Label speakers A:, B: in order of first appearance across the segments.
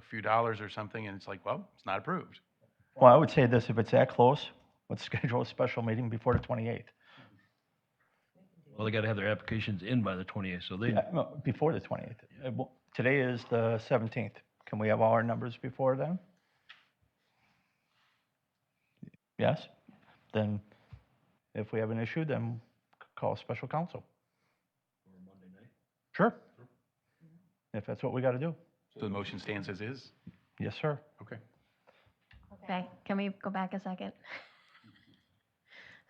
A: few dollars or something, and it's like, well, it's not approved.
B: Well, I would say this, if it's that close, let's schedule a special meeting before the 28th.
C: Well, they gotta have their applications in by the twenty-eighth, so they,
B: Yeah, Uh, no, Before the 28th. Uh, well, Today is the 17th. Can we have all our numbers before then? Yes? Then if we have an issue, then c- call special counsel. Sure. If that's what we got to do.
A: So the motion stands as is.
B: Yes, sir.
A: Okay.
D: Okay, can we go back a second?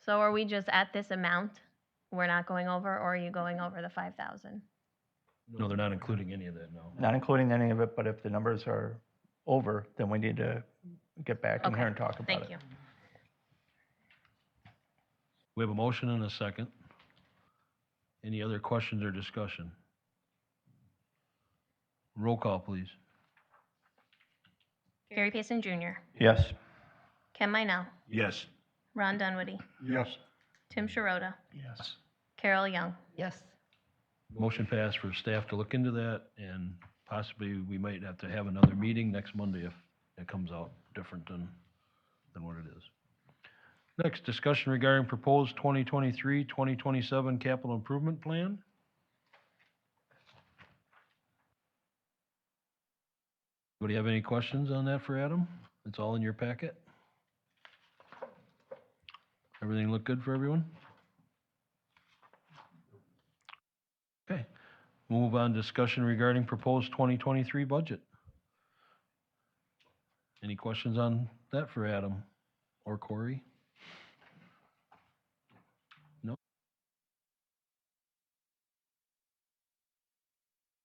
D: So are we just at this amount? We're not going over, or are you going over the five thousand?
C: no, they're not including any of that, no.
B: Not including any of it, but if the numbers are over, then we need to get back in
D: Okay,
B: here and talk about it.
D: Thank you.
C: We have a motion and a second. Any other questions or discussion? Roll call, please.
D: Gary Payson Jr.,
B: Yes.
D: Ken Minell,
C: Yes.
D: Ron Dunwoody,
A: Yes.
D: Tim Sharota,
C: Yes.
D: Carol Young.
E: Yes.
C: Motion passed for staff to look into that, and possibly we might have to have another meeting next Monday if it comes out different than, than what it is. Next, discussion regarding proposed 2023, 2027 capital improvement plan. Anybody have any questions on that for Adam? It's all in your packet. Everything look good for everyone? Okay, we'll move on, discussion regarding proposed 2023 budget. Any questions on that for Adam or Corey? No?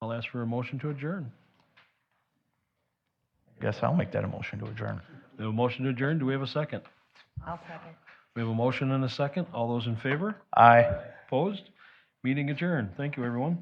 C: I'll ask for a motion to adjourn.
B: Guess I'll make that a motion to adjourn.
C: We have a motion to adjourn, do we have a second?
E: I'll second.
C: We have a motion and a second, all those in favor?
B: Aye.
C: Opposed? Meeting adjourned, thank you, everyone.